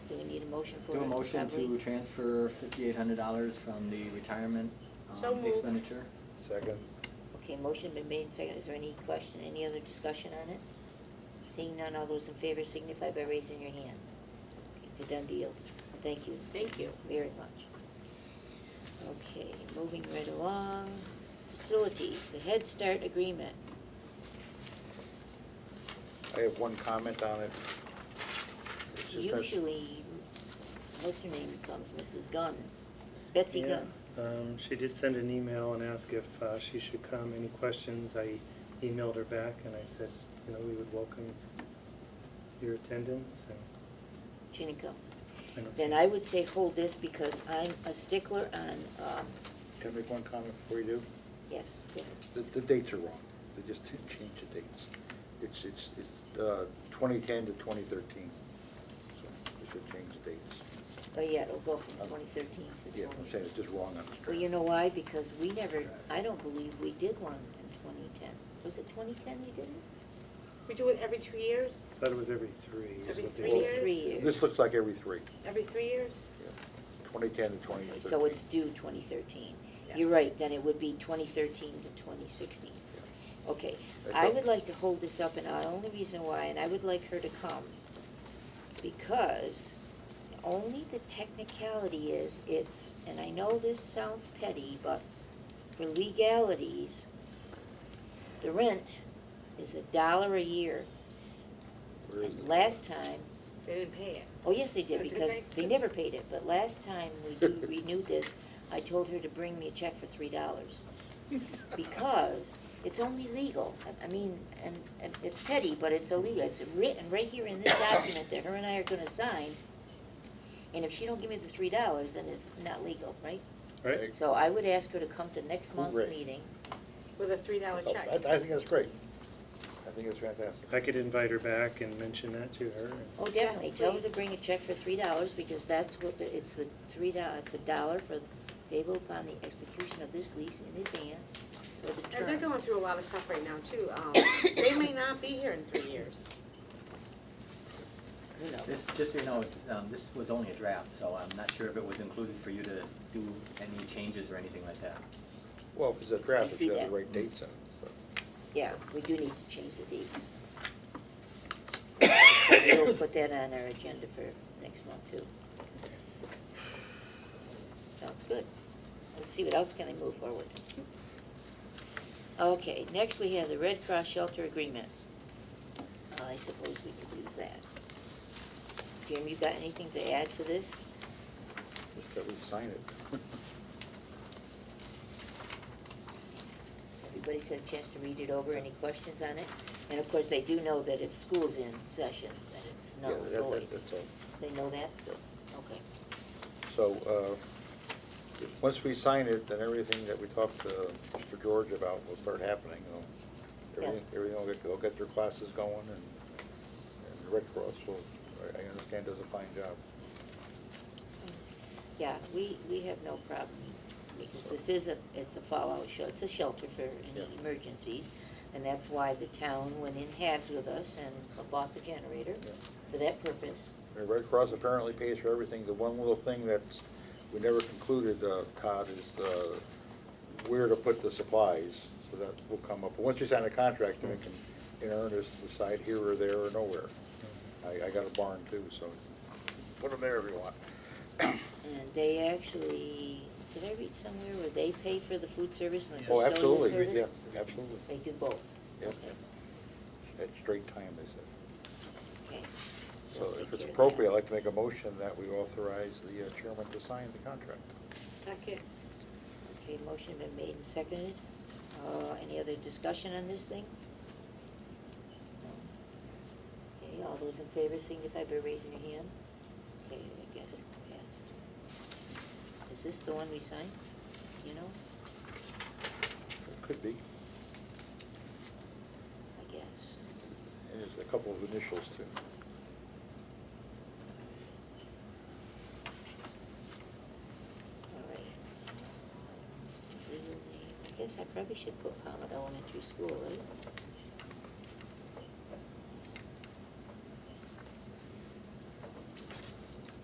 motion for Do a motion that, to we- transfer fifty-eight hundred dollars from the retirement So um, moved. expenditure. Second? Okay, motion been made, second, is there any question, any other discussion on it? Seeing none, all those in favor signify by raising your hand. It's a done deal, thank you. Thank you. Very much. Okay, moving right along, facilities, the Head Start agreement. I have one comment on it. It's just that- Usually, what's her name comes, Mrs. Gunn, Betsy Yeah, Gunn. uh, Um, she did send an email and ask if uh, she should come, any questions, I emailed her back and I said, you know, we would welcome your attendance and. She didn't come. I don't see- Then I would say hold this because I'm a stickler on, um, Can I make one comment before you do? yes, go ahead. The, the dates are wrong. They just didn't change the dates. It's, it's, it's, uh, twenty-ten to twenty-thirteen. So they should change the dates. Oh, yeah, it'll go from twenty thirteen to Yeah, I'm saying twenty. it's just wrong on the. Well, you know why? Because we never, I don't believe we did one in twenty ten. Was it twenty ten we did it? We do it every two years, Thought it was every three. is Every what they three did. years? Three years. This looks like every three. every three years? Twenty-ten to Okay, twenty-thirteen. So it's due twenty thirteen. Yeah. You're right, then it would be twenty thirteen to twenty sixteen. Okay, Okay. I would like to hold this up, and the only reason why, and I would like her to come, because only the technicality is, it's, and I know this sounds petty, but for legalities, the rent is a dollar a year. Where is it? Last time, They didn't pay it. Oh, yes, they did, Oh, did because they? they never paid it, but last time we do- renewed this, I told her to bring me a check for three dollars. Because it's only legal, I, I mean, and, and it's petty, but it's illegal, it's written right here in this document that her and I are gonna sign. And if she don't give me the three dollars, then it's not legal, right? Right, So I would ask her to come to next month's Right. meeting. With a three dollar Oh, check. I, I think that's great. I think it's fantastic. I could invite her back and mention that to her. and- Oh, Yes, definitely, tell her to please. bring a check for three dollars, because that's what, the- it's the three dollars. it's a dollar for payable upon the execution of this lease in advance for the And they're term. going through a lot of stuff right now too. Um, they may not be here in three years. Who knows? This, just so you know, um, this was only a draft, so I'm not sure if it was included for you to do any changes or anything like that. Well, if it's a I draft, see it's got the that. right dates in it, so. Yeah, we do need to change the dates. So We'll put that on our agenda for next month too. Sounds good. Let's see, what else can I move forward? Okay, next we have the Red Cross Shelter Agreement. Uh, I suppose we could use that. Jim, you got anything to add to this? Just that we sign it. Everybody's had a chance to read it over, any questions on it? And of course, they do know that if school's in session, then it's Yeah, null that- and that- void. That's all. They know that? Okay. So, uh, once we sign it, then everything that we talked to Mr. George about will start happening. you know. Yeah. Everything, everything will get, they'll get their classes going and, and the Red Cross will, I- I understand, does a fine job. Yeah, we, we have no problem, because this is a, it's a fallout shelter, it's a shelter for any Yeah. emergencies. And that's why the town went in halves with us and bought the generator Yeah. for that purpose. The Red Cross apparently pays for everything. The one little thing that's, we never concluded, uh, Todd, is uh, where to put the supplies. So that will come up. But Once you sign a contract, then we can, in earnest, decide here or there or nowhere. I, I got a barn too, so put them there if you want. And they actually, did I read somewhere where they pay for the food service and the Oh, custodial service? absolutely, yeah, absolutely. They do both? Yeah. Okay. At straight time, they said. Okay. So We'll take if it's care of that. appropriate, I'd like to make a motion that we authorize the uh, chairman to sign the contract. Second, Okay, motion been made and seconded. Uh, any other discussion on this thing? No. Okay, all those in favor signify by raising your hand. Okay, I guess it's passed. Is this the one we signed? You know, It could be, I guess. and there's a couple of initials too. All right. Legal name. I guess I probably should put Palmer Elementary School, right?